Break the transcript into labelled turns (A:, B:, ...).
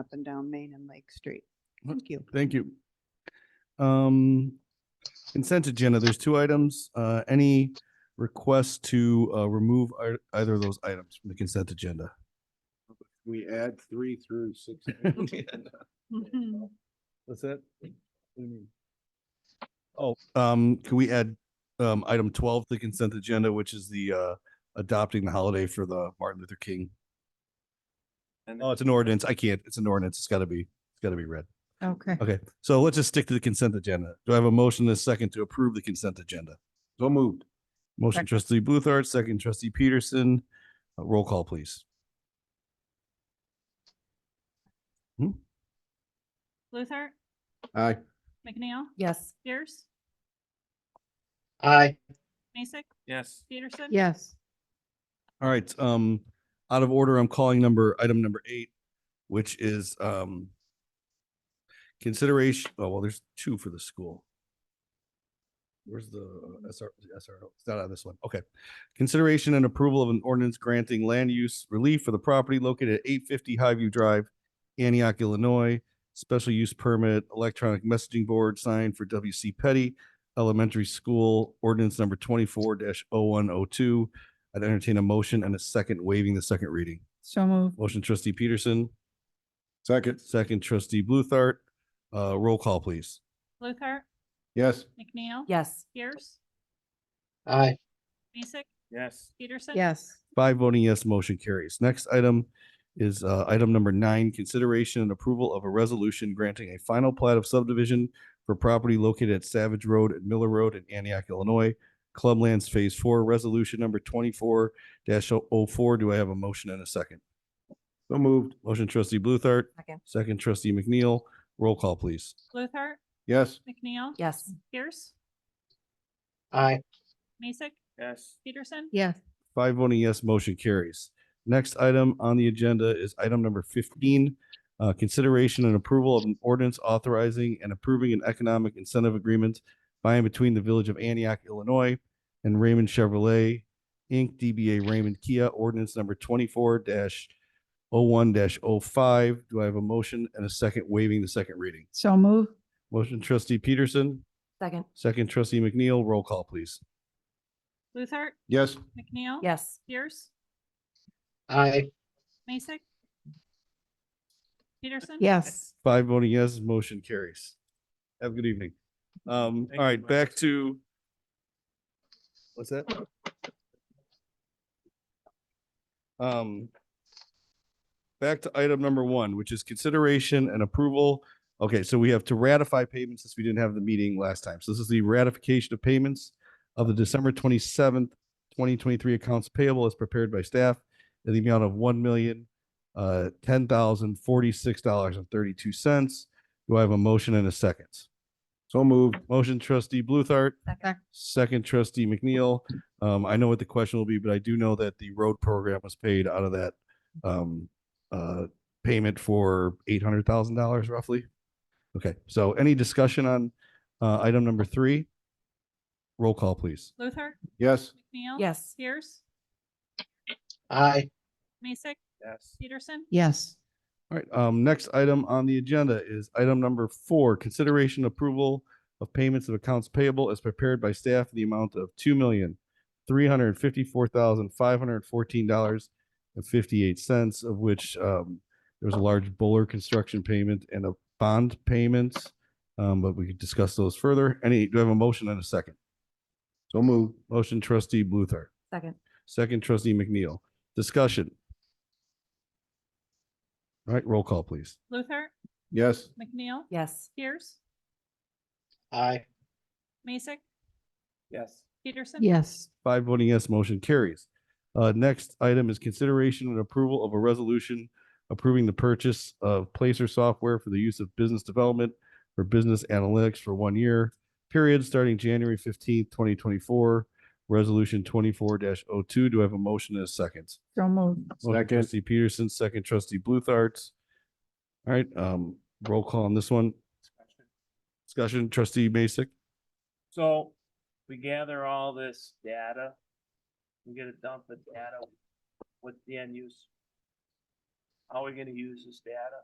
A: up and down Main and Lake Street. Thank you.
B: Thank you. Um, consent agenda, there's two items. Uh, any request to, uh, remove ei- either of those items from the consent agenda?
C: We add three through six.
B: What's that? Oh, um, can we add, um, item twelve, to the consent agenda, which is the, uh, adopting the holiday for the Martin Luther King? Oh, it's an ordinance. I can't. It's an ordinance. It's gotta be, it's gotta be read.
A: Okay.
B: Okay, so let's just stick to the consent agenda. Do I have a motion in a second to approve the consent agenda?
C: So moved.
B: Motion
A: Second.
B: trustee Bluthart, second trustee Peterson. Uh, Roll call, please.
D: Luther,
C: Aye.
D: McNeil,
A: Yes.
D: Pierce,
E: Aye.
D: Mason,
E: Yes.
D: Peterson.
A: Yes.
B: All right, um, out of order, I'm calling number, item number eight, which is, um, consideration, oh, well, there's two for the school. Where's the uh, SR, the SRO? It's not on this one. Okay. Consideration and approval of an ordinance granting land use relief for the property located at eight fifty Highview Drive, Antioch, Illinois. Special use permit, electronic messaging board signed for WC Petty Elementary School, ordinance number twenty-four 102 I'd entertain a motion and a second waiving the second reading.
A: So moved.
B: Motion trustee Peterson,
C: Second.
B: second trustee Bluthart. Uh, roll call, please.
D: Luther,
C: Yes.
D: McNeil.
A: Yes.
D: Pierce,
E: Aye.
D: Mason,
E: Yes.
D: Peterson.
A: Yes.
B: Five voting yes, motion carries. Next item is uh, item number nine, consideration and approval of a resolution granting a final plat of subdivision for property located at Savage Road and Miller Road in Antioch, Illinois. Clublands Phase Four, Resolution Number twenty-four 4 Do I have a motion and a second?
C: So moved.
B: Motion trustee Bluthart,
A: Second.
B: second trustee McNeil. Roll call, please.
D: Luther,
C: Yes.
D: McNeil.
A: Yes.
D: Pierce,
E: Aye.
D: Mason,
E: Yes.
D: Peterson.
A: Yes.
B: Five voting yes, motion carries. Next item on the agenda is item number fifteen. Uh, consideration and approval of an ordinance authorizing and approving an economic incentive agreement by and between the Village of Antioch, Illinois and Raymond Chevrolet, Inc., DBA Raymond Kia, ordinance number twenty-four dash oh one dash oh five. Do I have a motion and a second waiving the second reading?
A: So moved.
B: Motion trustee Peterson,
A: Second.
B: second trustee McNeil, roll call, please.
D: Luther,
C: Yes.
D: McNeil.
A: Yes.
D: Pierce,
E: Aye.
D: Mason. Peterson.
A: Yes.
B: Five voting yes, motion carries. Have a good evening. Um,
E: Thank
B: all
E: you,
B: right,
E: Mike.
B: back to. What's that? Um. Back to item number one, which is consideration and approval. Okay, so we have to ratify payments since we didn't have the meeting last time. So this is the ratification of payments of the December twenty-seventh, twenty twenty-three accounts payable as prepared by staff in the amount of one million, uh, ten thousand forty-six dollars and thirty-two cents. Do I have a motion and a second?
C: So moved.
B: Motion trustee Bluthart,
A: Second.
B: second trustee McNeil. Um, I know what the question will be, but I do know that the road program was paid out of that um, uh, payment for eight hundred thousand dollars roughly. Okay, so any discussion on uh, item number three? Roll call, please.
D: Luther,
C: Yes.
D: McNeil.
A: Yes.
D: Pierce,
E: Aye.
D: Mason,
E: Yes.
D: Peterson.
A: Yes.
B: All right, um, next item on the agenda is item number four, consideration approval of payments of accounts payable as prepared by staff in the amount of two million, three hundred and fifty-four thousand, five hundred and fourteen dollars and fifty-eight cents, of which, um, there was a large Buller construction payment and a bond payment. Um, but we could discuss those further. Any, do I have a motion and a second?
C: So moved.
B: Motion trustee Bluthart,
A: Second.
B: second trustee McNeil. Discussion. All right, roll call, please.
D: Luther,
C: Yes.
D: McNeil.
A: Yes.
D: Pierce,
E: Aye.
D: Mason,
E: Yes.
D: Peterson.
A: Yes.
B: Five voting yes, motion carries. Uh, next item is consideration and approval of a resolution approving the purchase of Placer software for the use of business development for business analytics for one year period starting January fifteenth, twenty twenty-four. Resolution twenty-four 2 Do I have a motion and a second?
A: So moved.
B: Motion
C: Second.
B: trustee Peterson, second trustee Bluthart. All right, um, roll call on this one. Discussion, trustee Masek.
F: So we gather all this data. We get a dump of data. What's the end use? How are we gonna use this data?